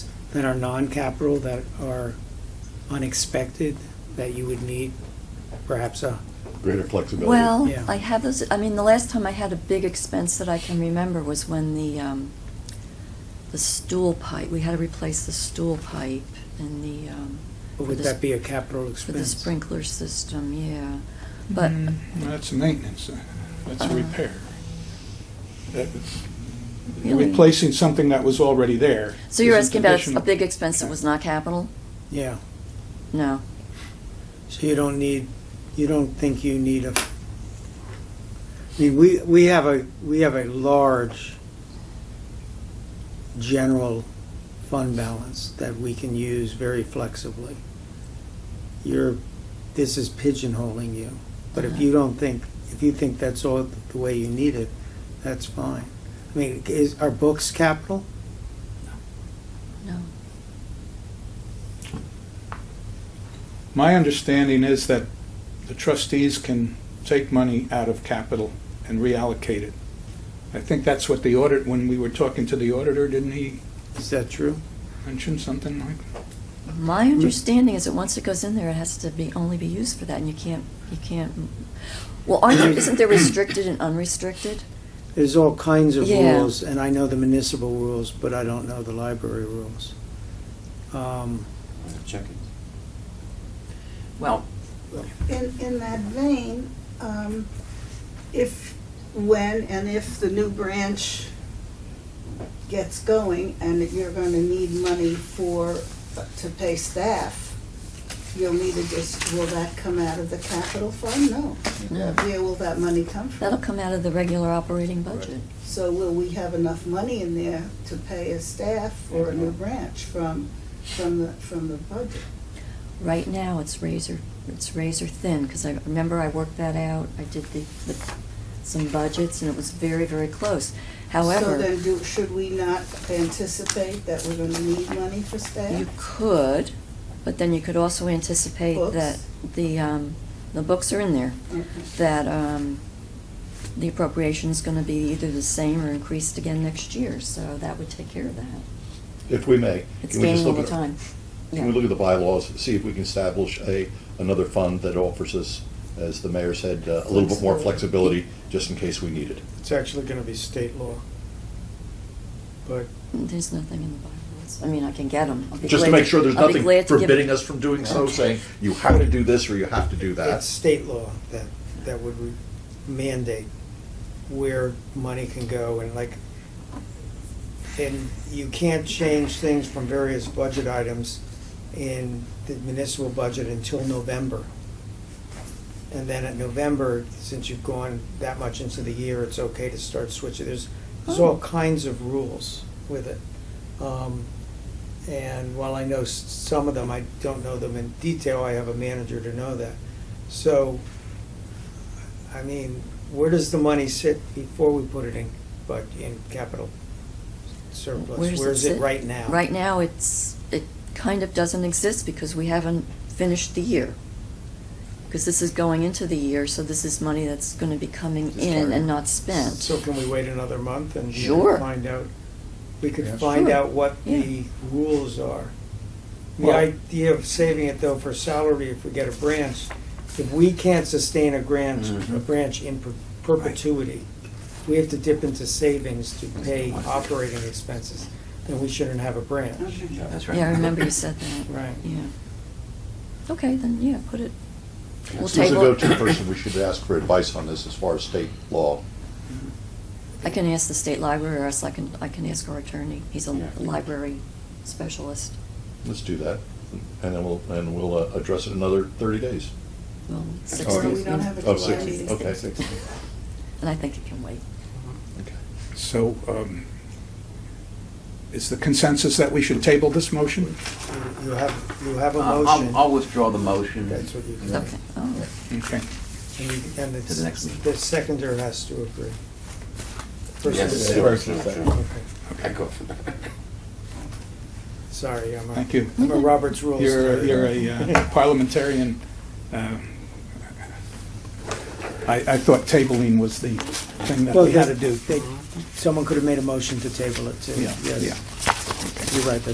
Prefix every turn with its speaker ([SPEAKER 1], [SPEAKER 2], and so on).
[SPEAKER 1] that are non-capital, that are unexpected, that you would need perhaps a,
[SPEAKER 2] greater flexibility.
[SPEAKER 3] Well,
[SPEAKER 1] Yeah.
[SPEAKER 3] I have those, I mean, the last time I had a big expense that I can remember was when the, um, the stool pipe, we had to replace the stool pipe and the, um,
[SPEAKER 1] or would
[SPEAKER 3] For the
[SPEAKER 1] that
[SPEAKER 3] sp-
[SPEAKER 1] be a capital
[SPEAKER 3] for the
[SPEAKER 1] expense?
[SPEAKER 3] sprinkler system, yeah. But,
[SPEAKER 4] Mm, That's maintenance, that's a
[SPEAKER 3] Uh,
[SPEAKER 4] repair. That-
[SPEAKER 3] Really?
[SPEAKER 4] Replacing something that was already there.
[SPEAKER 3] so you're
[SPEAKER 4] is
[SPEAKER 3] asking about a- a
[SPEAKER 4] additional-
[SPEAKER 3] big expense that was not capital?
[SPEAKER 1] Yeah,
[SPEAKER 3] No.
[SPEAKER 1] so you don't need, you don't think you need a, I mean, we, we have a, we have a large general fund balance that we can use very flexibly. You're, this is pigeonholing you, but if you don't think, if you think that's all the way you need it, that's fine. I mean, is, are books capital?
[SPEAKER 3] No.
[SPEAKER 4] My understanding is that the trustees can take money out of capital and reallocate it. I think that's what the audit, when we were talking to the auditor, didn't he
[SPEAKER 1] Is that true?
[SPEAKER 4] mention something like?
[SPEAKER 3] My understanding is that once it goes in there, it has to be, only be used for that, and you can't, you can't, well, aren't there, isn't there restricted and unrestricted?
[SPEAKER 1] There's all kinds of
[SPEAKER 3] Yeah.
[SPEAKER 1] rules, and I know the municipal rules, but I don't know the library rules. Um,
[SPEAKER 5] Checking.
[SPEAKER 6] Well,
[SPEAKER 7] In, in that vein, um, if, when and if the new branch gets going and that you're gonna need money for, to pay staff, you'll need a, dis- will that come out of the capital fund? No.
[SPEAKER 3] No.
[SPEAKER 7] Where will that money come
[SPEAKER 3] That'll
[SPEAKER 7] from?
[SPEAKER 3] come out of the regular operating budget.
[SPEAKER 7] So will we have enough money in there to pay a staff for a new branch from, from the, from the budget?
[SPEAKER 3] Right now, it's razor, it's razor thin, because I remember I worked that out, I did the, the, some budgets, and it was very, very close.
[SPEAKER 7] So
[SPEAKER 3] However,
[SPEAKER 7] then do, should we not anticipate that we're gonna need money for staff?
[SPEAKER 3] you could, but then you could also anticipate
[SPEAKER 7] Books?
[SPEAKER 3] that the, um, the books are in there,
[SPEAKER 7] Okay.
[SPEAKER 3] that, um, the appropriation's gonna be either the same or increased again next year, so that would take care of that.
[SPEAKER 2] If we may.
[SPEAKER 3] It's
[SPEAKER 2] can we just
[SPEAKER 3] gaining
[SPEAKER 2] look
[SPEAKER 3] over
[SPEAKER 2] at-
[SPEAKER 3] time.
[SPEAKER 2] Can we look at the bylaws, see if we can establish a, another fund that offers us, as the mayor said, uh, a little bit more flexibility, just in case we need it?
[SPEAKER 8] It's actually gonna be state law. But
[SPEAKER 3] There's nothing in the bylaws, I mean, I can get them.
[SPEAKER 2] Just to make sure there's nothing forbidding us from doing so,
[SPEAKER 3] Okay.
[SPEAKER 2] saying, you have to do this or you have to do
[SPEAKER 1] It's
[SPEAKER 2] that.
[SPEAKER 1] state law that, that would re- mandate where money can go and like, and you can't change things from various budget items in the municipal budget until November. And then at November, since you've gone that much into the year, it's okay to start switching. There's, there's all kinds of rules with it. Um, And while I know s- some of them, I don't know them in detail, I have a manager to know that. So, I mean, where does the money sit before we put it in, but in capital surplus?
[SPEAKER 3] Where's
[SPEAKER 1] Where is it
[SPEAKER 3] sit?
[SPEAKER 1] right now?
[SPEAKER 3] Right now, it's, it kind of doesn't exist because we haven't finished the year. Because this is going into the year, so this is money that's gonna be coming in and not spent.
[SPEAKER 1] So can we wait another month and
[SPEAKER 3] Sure.
[SPEAKER 1] find out? We could
[SPEAKER 2] Yeah.
[SPEAKER 1] find
[SPEAKER 3] Sure.
[SPEAKER 1] out what
[SPEAKER 3] Yeah.
[SPEAKER 1] the rules are. The
[SPEAKER 4] Well-
[SPEAKER 1] idea of saving it though for salary, if we get a branch, if we can't sustain a branch, a
[SPEAKER 5] Mhm.
[SPEAKER 1] branch in per- perpetuity, we have to dip into savings to pay operating expenses, then we shouldn't have a branch.
[SPEAKER 7] Okay.
[SPEAKER 5] Yeah, that's right.
[SPEAKER 3] Yeah, I remember you said that.
[SPEAKER 1] Right.
[SPEAKER 3] Yeah. Okay, then, yeah, put it, we'll
[SPEAKER 2] Susan,
[SPEAKER 3] table
[SPEAKER 2] go-to
[SPEAKER 3] it.
[SPEAKER 2] person, we should ask for advice on this as far as state law.
[SPEAKER 3] I can ask the state library, or else I can, I can ask our attorney. He's a
[SPEAKER 5] Yeah.
[SPEAKER 3] library specialist.
[SPEAKER 2] Let's do that, and then we'll, and we'll uh, address it in another thirty days.
[SPEAKER 3] Well, six
[SPEAKER 2] Or we
[SPEAKER 3] days,
[SPEAKER 7] don't
[SPEAKER 3] yeah.
[SPEAKER 7] have a
[SPEAKER 2] Oh,
[SPEAKER 7] July
[SPEAKER 2] six-
[SPEAKER 7] meeting.
[SPEAKER 2] Okay.
[SPEAKER 3] And I think it can wait.
[SPEAKER 2] Okay.
[SPEAKER 4] So, um, is the consensus that we should table this motion?
[SPEAKER 1] You- You have, you have a
[SPEAKER 3] uh,
[SPEAKER 5] Uh, I'll- I'll,
[SPEAKER 1] motion,
[SPEAKER 5] I'll withdraw the motion.
[SPEAKER 1] That's what you do.
[SPEAKER 3] Okay, Oh. all right.
[SPEAKER 4] Okay.
[SPEAKER 1] and you- and
[SPEAKER 5] To the next
[SPEAKER 1] the,
[SPEAKER 5] meeting.
[SPEAKER 1] the seconder has to agree. First
[SPEAKER 5] Yes,
[SPEAKER 1] and
[SPEAKER 5] it's
[SPEAKER 1] second.
[SPEAKER 5] true.
[SPEAKER 1] Okay,
[SPEAKER 5] Echo.
[SPEAKER 1] sorry, I'm a.
[SPEAKER 4] Thank you.
[SPEAKER 1] I'm a Roberts rules.
[SPEAKER 4] You're,
[SPEAKER 1] nerd.
[SPEAKER 4] you're a uh, parliamentarian. uh, I, I thought tabling was the thing that
[SPEAKER 1] Well,
[SPEAKER 4] we had to do.
[SPEAKER 1] they- Someone could have made a motion to table it, too.
[SPEAKER 4] Yeah,
[SPEAKER 1] Yes.
[SPEAKER 4] yeah.
[SPEAKER 1] You're right,